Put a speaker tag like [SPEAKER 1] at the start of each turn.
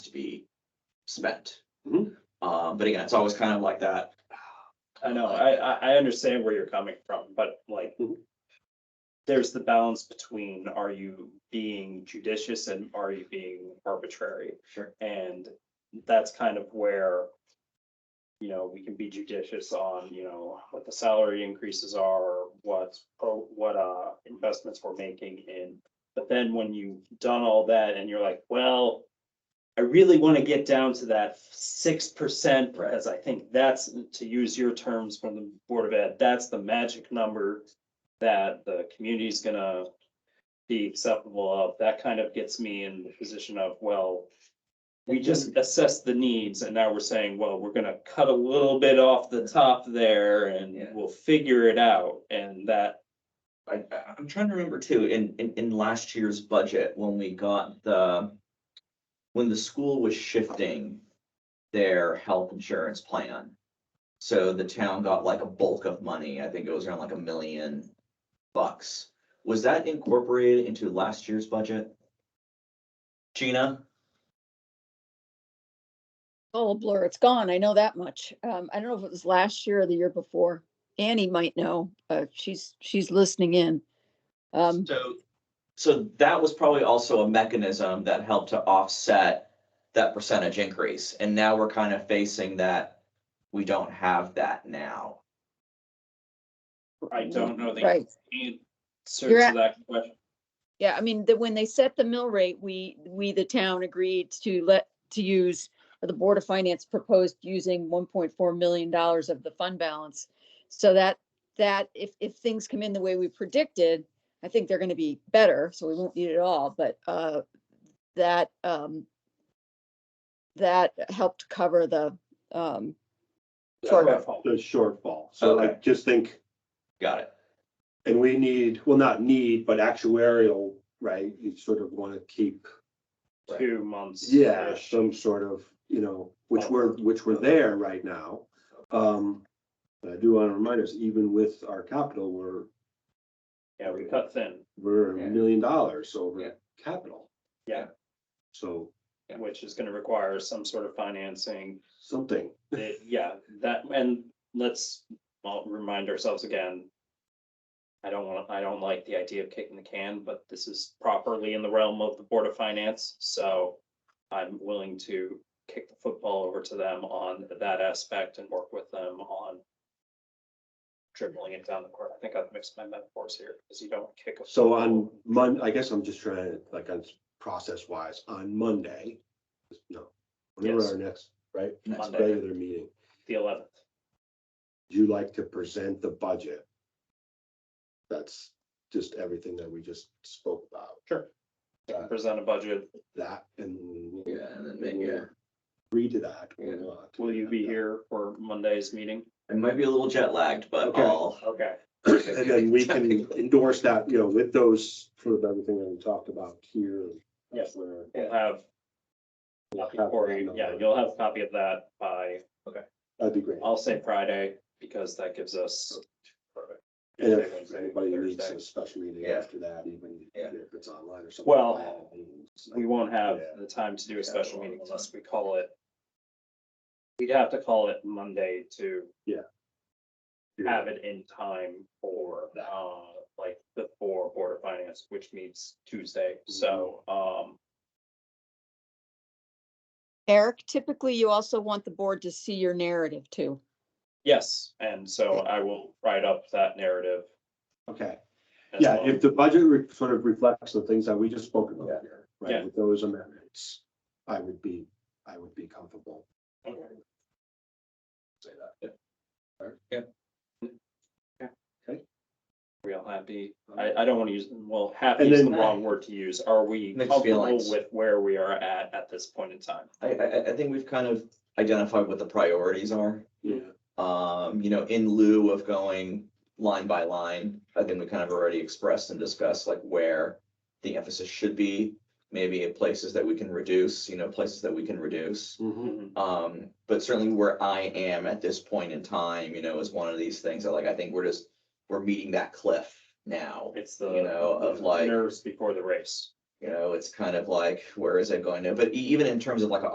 [SPEAKER 1] spent.
[SPEAKER 2] Mhm.
[SPEAKER 1] Uh, but again, it's always kind of like that.
[SPEAKER 2] I know, I, I, I understand where you're coming from, but like.
[SPEAKER 1] Mhm.
[SPEAKER 2] There's the balance between are you being judicious and are you being arbitrary?
[SPEAKER 1] Sure.
[SPEAKER 2] And that's kind of where. You know, we can be judicious on, you know, what the salary increases are, what, pro- what, uh, investments we're making in. But then when you've done all that and you're like, well, I really want to get down to that six percent
[SPEAKER 1] Right.
[SPEAKER 2] because I think that's, to use your terms from the Board of Ed, that's the magic number that the community's gonna be acceptable of. That kind of gets me in the position of, well, we just assess the needs and now we're saying, well, we're gonna cut a little bit off the top there and
[SPEAKER 1] Yeah.
[SPEAKER 2] we'll figure it out. And that,
[SPEAKER 1] I, I- I'm trying to remember too, in, in, in last year's budget, when we got the, when the school was shifting their health insurance plan. So the town got like a bulk of money. I think it was around like a million bucks. Was that incorporated into last year's budget? Gina?
[SPEAKER 3] all a Oh, blur. It's gone. I know that much. Um, I don't know if it was last year or the year before. Annie might know. Uh, she's, she's listening in. Um,
[SPEAKER 1] So, so that was probably also a mechanism that helped to offset that percentage increase. And now we're kind of facing that, we don't have that now.
[SPEAKER 2] I don't know the
[SPEAKER 3] Right.
[SPEAKER 2] answer
[SPEAKER 3] You're
[SPEAKER 2] to
[SPEAKER 3] at-
[SPEAKER 2] that question.
[SPEAKER 3] yeah, I mean, that when they set the mill rate, we, we, the town agreed to let, to use, or the Board of Finance proposed using one point four million dollars of the fund balance. So that, that if, if things come in the way we predicted, I think they're gonna be better, so we won't need it all, but, uh, that, um, that helped cover the, um, Sure.
[SPEAKER 2] Shortfall.
[SPEAKER 4] Uh, the shortfall. So I
[SPEAKER 1] Okay.
[SPEAKER 4] just think,
[SPEAKER 1] Got it.
[SPEAKER 4] and we need, well, not need, but actuarial, right? You sort of want to keep,
[SPEAKER 2] Two months.
[SPEAKER 4] yeah, some sort of, you know, which we're, which we're there right now. Um, but I do want to remind us, even with our capital, we're,
[SPEAKER 2] Yeah, we cut thin,
[SPEAKER 4] we're
[SPEAKER 1] Yeah.
[SPEAKER 4] a million dollars
[SPEAKER 1] Yeah.
[SPEAKER 4] over capital.
[SPEAKER 2] Yeah.
[SPEAKER 4] So
[SPEAKER 1] Yeah.
[SPEAKER 2] which is gonna require some sort of financing.
[SPEAKER 4] something,
[SPEAKER 2] It- Yeah, that, and let's all remind ourselves again. I don't want, I don't like the idea of kicking the can, but this is properly in the realm of the Board of Finance, so I'm willing to kick the football over to them on that aspect and work with them on dribbling it down the court. I think I've mixed my metaphors here, because you don't kick a.
[SPEAKER 4] so on Mon, I guess I'm just trying to, like, on process wise, on Monday, no, whenever
[SPEAKER 2] Yes.
[SPEAKER 4] our next, right,
[SPEAKER 1] Next
[SPEAKER 2] Monday.
[SPEAKER 4] regular meeting.
[SPEAKER 2] The eleventh.
[SPEAKER 4] you like to present the budget. That's just everything that we just spoke about,
[SPEAKER 2] Sure.
[SPEAKER 4] Yeah.
[SPEAKER 2] Present a budget.
[SPEAKER 4] that and
[SPEAKER 1] Yeah, and then maybe, yeah,
[SPEAKER 4] agree to that
[SPEAKER 1] Yeah.
[SPEAKER 4] or not.
[SPEAKER 2] Will you be here for Monday's meeting?
[SPEAKER 1] I might be a little jet lagged, but
[SPEAKER 4] Okay.
[SPEAKER 1] I'll.
[SPEAKER 2] Okay.
[SPEAKER 4] And then we can endorse that, you know, with those, sort of everything that we talked about here.
[SPEAKER 2] Yes.
[SPEAKER 4] Where-
[SPEAKER 2] We'll have,
[SPEAKER 4] We'll have that
[SPEAKER 2] Corey, yeah,
[SPEAKER 4] number.
[SPEAKER 2] you'll have a copy of that by,
[SPEAKER 4] That'd be great.
[SPEAKER 2] I'll say Friday, because that gives us.
[SPEAKER 4] And
[SPEAKER 2] Tuesday,
[SPEAKER 4] if
[SPEAKER 2] Wednesday,
[SPEAKER 4] anybody needs
[SPEAKER 2] Thursday.
[SPEAKER 4] a special meeting
[SPEAKER 1] Yeah.
[SPEAKER 4] after that, even
[SPEAKER 1] Yeah.
[SPEAKER 4] if it's online or something.
[SPEAKER 2] Well,
[SPEAKER 4] It's like-
[SPEAKER 2] We won't have
[SPEAKER 4] Yeah.
[SPEAKER 2] the time to do
[SPEAKER 1] Yeah,
[SPEAKER 2] a special
[SPEAKER 1] we'll-
[SPEAKER 2] meeting unless we call it. We'd have to call it Monday to have it in time for, uh, like, before Board of Finance, which meets Tuesday,
[SPEAKER 4] Mm-hmm.
[SPEAKER 2] so, um,
[SPEAKER 3] Eric, typically you also want the board to see your narrative too.
[SPEAKER 2] yes, and so I will write up that narrative.
[SPEAKER 4] Okay.
[SPEAKER 2] as
[SPEAKER 4] Yeah,
[SPEAKER 2] well.
[SPEAKER 4] if the budget re- sort of reflects the things that we just spoke about here,
[SPEAKER 2] Yeah.
[SPEAKER 4] right, with those amendments, I would be, I would be comfortable.
[SPEAKER 2] Okay.
[SPEAKER 4] Say that.
[SPEAKER 2] We all happy?
[SPEAKER 1] Um,
[SPEAKER 2] I, I don't want to use, well, happy
[SPEAKER 4] And
[SPEAKER 2] is the
[SPEAKER 4] then-
[SPEAKER 2] wrong word to use. Are we
[SPEAKER 1] Mixed
[SPEAKER 2] comfortable
[SPEAKER 1] feelings.
[SPEAKER 2] with where we are at, at this point in time?
[SPEAKER 1] I, I, I- I think we've kind of identified what the priorities are.
[SPEAKER 4] Yeah,
[SPEAKER 1] Um, you know, in lieu of going line by line, I think we kind of already expressed and discussed like where the emphasis should be, maybe in places that we can reduce, you know, places that we can reduce.
[SPEAKER 4] Mhm.
[SPEAKER 1] Um, but certainly where I am at this point in time, you know, is one of these things that like, I think we're just, we're meeting that cliff now.
[SPEAKER 2] It's
[SPEAKER 1] You
[SPEAKER 2] the
[SPEAKER 1] know, of like,
[SPEAKER 2] nerves before the race.
[SPEAKER 1] you know, it's kind of like, where is it going to, but e- even in terms of like a